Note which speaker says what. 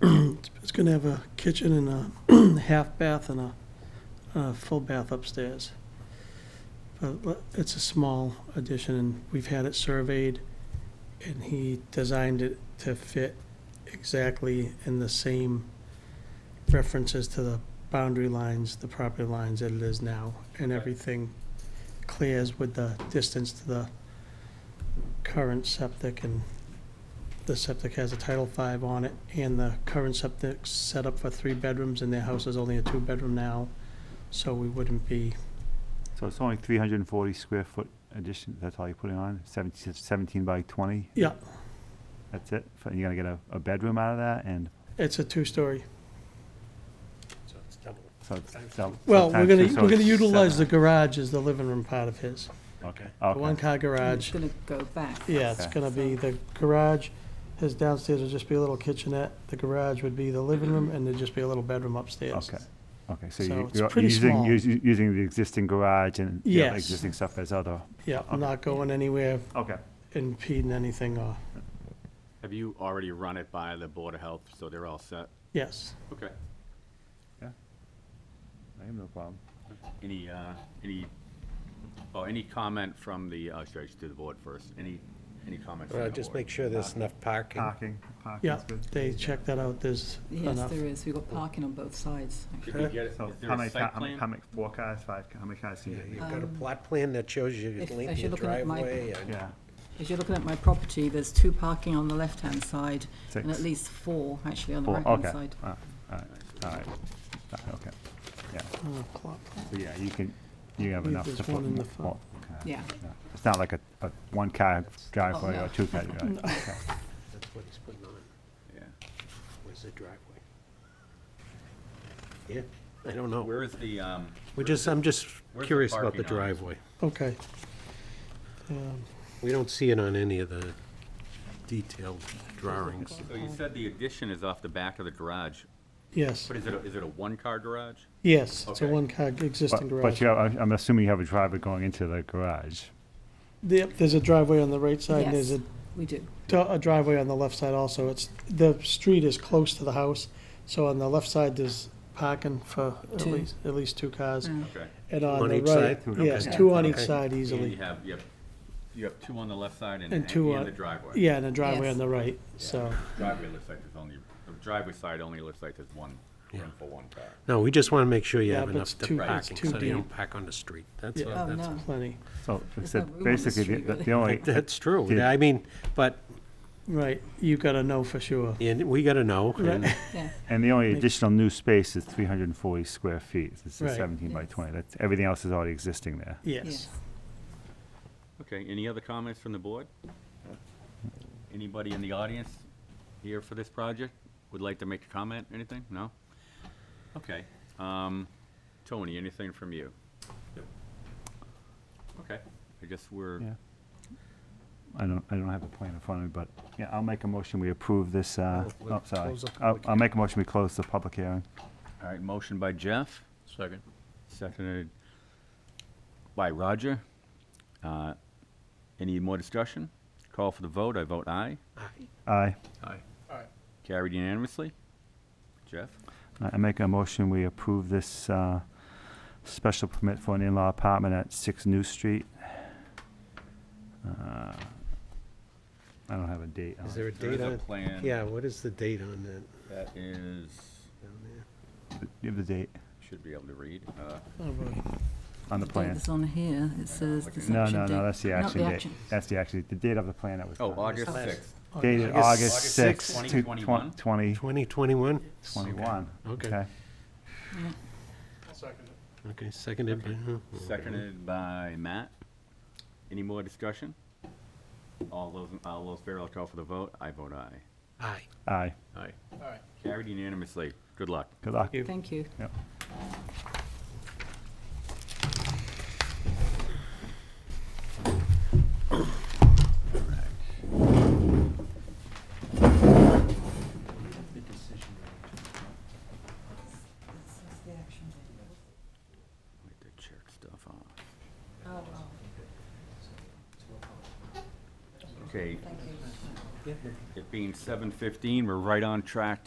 Speaker 1: It's going to have a kitchen and a half bath and a, a full bath upstairs. But le- it's a small addition, and we've had it surveyed, and he designed it to fit exactly in the same references to the boundary lines, the property lines that it is now, and everything clears with the distance to the current septic and the septic has a Title V on it, and the current septic's set up for three bedrooms, and their house is only a two-bedroom now, so we wouldn't be,
Speaker 2: So it's only three hundred and forty square foot addition, that's all you're putting on, 17 17 by twenty,
Speaker 1: yeah,
Speaker 2: that's it? F- And you're gonna get a, a bedroom out of that and,
Speaker 1: it's a two-story.
Speaker 3: So it's double.
Speaker 2: so it's dou- so
Speaker 1: Well, we're
Speaker 2: times
Speaker 1: gonna,
Speaker 2: two, so
Speaker 1: we're gonna
Speaker 2: it's
Speaker 1: utilize the
Speaker 2: seven.
Speaker 1: garage as the living room part of his,
Speaker 2: Okay,
Speaker 1: the
Speaker 2: okay,
Speaker 1: one-car
Speaker 4: And It's
Speaker 1: garage.
Speaker 4: gonna go back.
Speaker 1: Yeah, it's
Speaker 2: Okay.
Speaker 1: gonna be the garage, his downstairs would just be a little kitchenette, the garage would be the living room, and there'd just be a little bedroom upstairs.
Speaker 2: okay, okay, so
Speaker 1: So
Speaker 2: you-
Speaker 1: it's
Speaker 2: you're
Speaker 1: pretty
Speaker 2: using,
Speaker 1: small.
Speaker 2: us- using the existing garage and the other
Speaker 1: Yes.
Speaker 2: existing stuff as other,
Speaker 1: Yeah,
Speaker 2: Okay.
Speaker 1: I'm not going anywhere
Speaker 2: okay.
Speaker 1: impeding anything, or,
Speaker 5: Have you already run it by the Board of Health, so they're all set?
Speaker 1: yes.
Speaker 5: Okay.
Speaker 2: I have no problem.
Speaker 5: Any, uh, any, oh, any comment from the, uh, should I just do the board first? Any, any comment from the board?
Speaker 3: Well, Uh,
Speaker 5: Uh,
Speaker 3: just make sure there's enough parking.
Speaker 2: Parking,
Speaker 1: Yeah,
Speaker 2: parking's good.
Speaker 1: they checked that out, there's
Speaker 4: Yes,
Speaker 1: enough.
Speaker 4: there is. We've got parking on both sides. actually.
Speaker 5: Did we get, is
Speaker 2: So
Speaker 5: there
Speaker 2: how
Speaker 5: a
Speaker 2: many, ca-
Speaker 5: site
Speaker 2: how many,
Speaker 5: plan?
Speaker 2: how many, four cars, five, ca- how many cars do you
Speaker 3: Yeah,
Speaker 2: need?
Speaker 3: You've got a plot plan that shows your
Speaker 4: if- as
Speaker 3: length of your
Speaker 4: you're looking at my-
Speaker 3: driveway and
Speaker 2: Yeah,
Speaker 4: As you're looking at my property, there's two parking on the left-hand side and
Speaker 2: Six.
Speaker 4: at least four actually on the
Speaker 2: four,
Speaker 4: right-hand
Speaker 2: okay,
Speaker 4: side.
Speaker 2: all right, all right, okay, yeah.
Speaker 1: Oh, clock.
Speaker 2: So yeah, you can, you have
Speaker 1: Leave
Speaker 2: enough
Speaker 1: this
Speaker 2: to
Speaker 1: one
Speaker 2: put.
Speaker 1: in the
Speaker 2: mo-
Speaker 1: front.
Speaker 2: more, okay.
Speaker 4: Yeah. Oh,
Speaker 2: It's not like a, a one-car driveway
Speaker 4: no.
Speaker 2: or two-car driveway. Okay.
Speaker 3: that's what he's putting on,
Speaker 5: Yeah.
Speaker 3: was the driveway. Yeah, I don't know.
Speaker 5: Where is the, um,
Speaker 3: We're just, I'm just
Speaker 5: where's the
Speaker 3: curious about
Speaker 5: parking
Speaker 3: the
Speaker 5: on this?
Speaker 3: driveway.
Speaker 1: Okay. Um,
Speaker 3: We don't see it on any of the detailed drawings.
Speaker 5: so you said the addition is off the back of the garage,
Speaker 1: Yes,
Speaker 5: but is it, a- is it a one-car garage?
Speaker 1: yes, it's a
Speaker 5: Okay.
Speaker 1: one-car existing
Speaker 2: But, but
Speaker 1: garage.
Speaker 2: you, have- I'm assuming you have a driver going into the garage.
Speaker 1: Yep, there's a driveway on the right side, and
Speaker 4: Yes,
Speaker 1: there's a
Speaker 4: we do.
Speaker 1: do- a driveway on the left side also. It's, the street is close to the house, so on the left side, there's parking for at
Speaker 4: Two. Oh.
Speaker 1: least, at least two cars.
Speaker 5: Okay.
Speaker 1: And on
Speaker 3: On
Speaker 1: the
Speaker 3: each
Speaker 1: right,
Speaker 3: side?
Speaker 1: yes,
Speaker 2: Okay.
Speaker 1: two on each
Speaker 3: Okay.
Speaker 1: side
Speaker 5: And you
Speaker 1: easily.
Speaker 5: have, you have, you have two on the left side and,
Speaker 1: And
Speaker 5: and
Speaker 1: two on-
Speaker 5: the driveway?
Speaker 1: Yeah, and a driveway on
Speaker 4: Yes.
Speaker 1: the right, so,
Speaker 5: Driveway looks like there's only, the driveway side only looks like there's one, room for one car.
Speaker 3: No, we just want to make sure you
Speaker 1: Yeah,
Speaker 3: have
Speaker 1: but it's
Speaker 3: enough to
Speaker 1: too-
Speaker 5: it's
Speaker 3: parking,
Speaker 1: too
Speaker 3: so you
Speaker 1: deep.
Speaker 3: don't park on the street. That's,
Speaker 1: Yeah.
Speaker 3: all-
Speaker 4: Oh,
Speaker 3: that's,
Speaker 4: no.
Speaker 1: plenty,
Speaker 2: So I
Speaker 4: There's no room
Speaker 2: said,
Speaker 4: on the
Speaker 2: basically,
Speaker 4: street,
Speaker 2: the-
Speaker 4: really.
Speaker 2: the only,
Speaker 3: that's true.
Speaker 2: Yeah.
Speaker 3: I mean, but,
Speaker 1: right, you gotta know for sure.
Speaker 3: and we gotta know. and-
Speaker 4: Yeah,
Speaker 2: and the only additional new space is 340 square feet. It's a
Speaker 1: Right.
Speaker 2: 17 by
Speaker 4: Yes.
Speaker 2: 20. That's, everything else is already existing there.
Speaker 1: Yes,
Speaker 4: yes.
Speaker 5: Okay, any other comments from the board? Anybody in the audience here for this project would like to make a comment, anything? No? Okay. um, Tony, anything from you? Okay, I guess we're,
Speaker 2: Yeah. I don't, I don't have a plan in front of me, but, yeah, I'll make a motion, we approve this, uh,
Speaker 3: Well, we'll
Speaker 2: oh, sorry.
Speaker 3: close the
Speaker 2: I'll,
Speaker 3: public
Speaker 2: I'll make a motion, we close the public hearing.
Speaker 5: all right, motion by Jeff. Second. Seconded by Roger. Uh, Any more discussion? Call for the vote, I vote aye.
Speaker 2: Aye.
Speaker 5: Aye. Carried unanimously. Jeff?
Speaker 2: I I make a motion, we approve this uh, special permit for an in-law apartment at 6 New Street. Uh, I don't have a date. on
Speaker 3: Is
Speaker 2: it.
Speaker 3: there a
Speaker 5: There
Speaker 3: date
Speaker 5: is a
Speaker 3: on?
Speaker 5: plan.
Speaker 3: Yeah, what is the date on that?
Speaker 5: That is,
Speaker 3: down there?
Speaker 2: You have the date
Speaker 5: should be able to read. uh,
Speaker 1: Oh, boy.
Speaker 2: on the
Speaker 4: The date
Speaker 2: plan.
Speaker 4: that's on here, it says this
Speaker 2: No,
Speaker 4: action
Speaker 2: no,
Speaker 4: date-
Speaker 2: no, that's the
Speaker 4: not
Speaker 2: action date.
Speaker 4: action.
Speaker 2: That's the action, the date of the plan that was
Speaker 5: Oh,
Speaker 2: done.
Speaker 5: August
Speaker 3: Last-
Speaker 5: 6th.
Speaker 2: Dated
Speaker 3: August-
Speaker 2: August
Speaker 3: August
Speaker 2: 6,
Speaker 5: 6th,
Speaker 2: 2021.
Speaker 3: 2021? Okay.
Speaker 2: Okay.
Speaker 4: Yeah.
Speaker 3: Okay, seconded by, who?
Speaker 5: Seconded by Matt. Any more discussion? All those, all those fair, I'll call for the vote. I vote aye.
Speaker 3: aye.
Speaker 2: Aye.
Speaker 5: Aye. Carried unanimously. Good luck.
Speaker 2: Good luck.
Speaker 1: you.
Speaker 4: Thank you.
Speaker 2: Yep.
Speaker 5: Wait to check stuff off.
Speaker 4: Oh,
Speaker 5: Okay. It being seven fifteen, we're right on track